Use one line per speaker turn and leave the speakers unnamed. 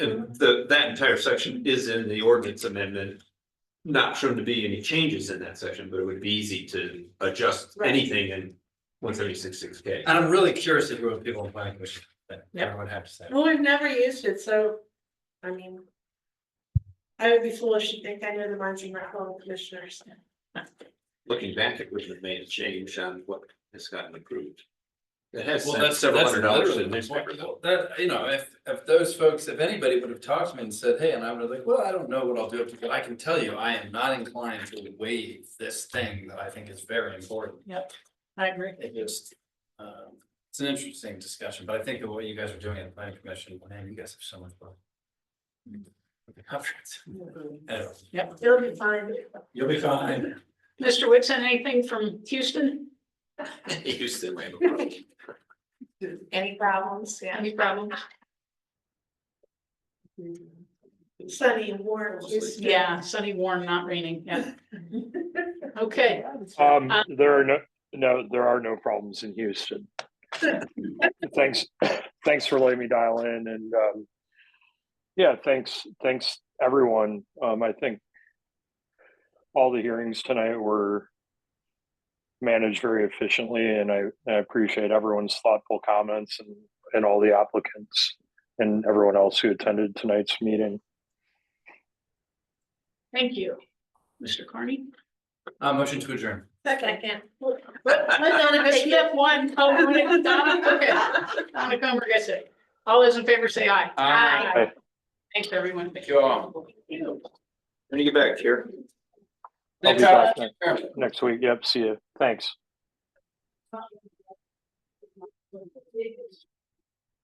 And the, that entire section is in the ordinance amendment. Not shown to be any changes in that section, but it would be easy to adjust
Right.
anything in one seventy six six K.
And I'm really curious if you're with people in planning commission, that everyone have to say.
Well, we've never used it, so, I mean. I would be foolish to think I know the minds of my fellow commissioners.
Looking back, it wouldn't have made a change on what has gotten approved. It has
Well,
sent
that's,
several
that's
hundred dollars to
literally
the
my point,
newspaper.
though. that, you know, if, if those folks, if anybody would have talked to me and said, hey, and I would have like, well, I don't know what I'll do. up to you." I can tell you, I am not inclined to waive this thing that I think is very important.
I agree.
It just, um, it's an interesting discussion, but I think that what you guys are doing at the planning commission, man, you guys have so much fun. With the conference. Anyway,
It'll be fine.
You'll be fine.
Mr. Whitson, anything from Houston?
Houston, we have a problem.
Any problems? Yeah.
Any problems?
Sunny and warm. Houston.
Yeah, sunny, warm, not raining, yeah. Okay,
Um,
Um,
there are no, no, there are no problems in Houston. Thanks, thanks for letting me dial in and, um, yeah, thanks, thanks everyone. Um, I think all the hearings tonight were managed very efficiently and I, I appreciate everyone's thoughtful comments and, and all the applicants and everyone else who attended tonight's meeting.
thank you. Mr. Carney?
Uh, motion to adjourn.
Second.
Oh, Donna Smith, one. Oh, wait, Donna, okay. Donna Comer gets it. All those in favor say aye.
Aye.
Aye.
Thanks, everyone.
Thank you all.
When you get back here.
I'll be
Thanks, Alex.
back next, next week. Yep, see you. Thanks.
Thank you.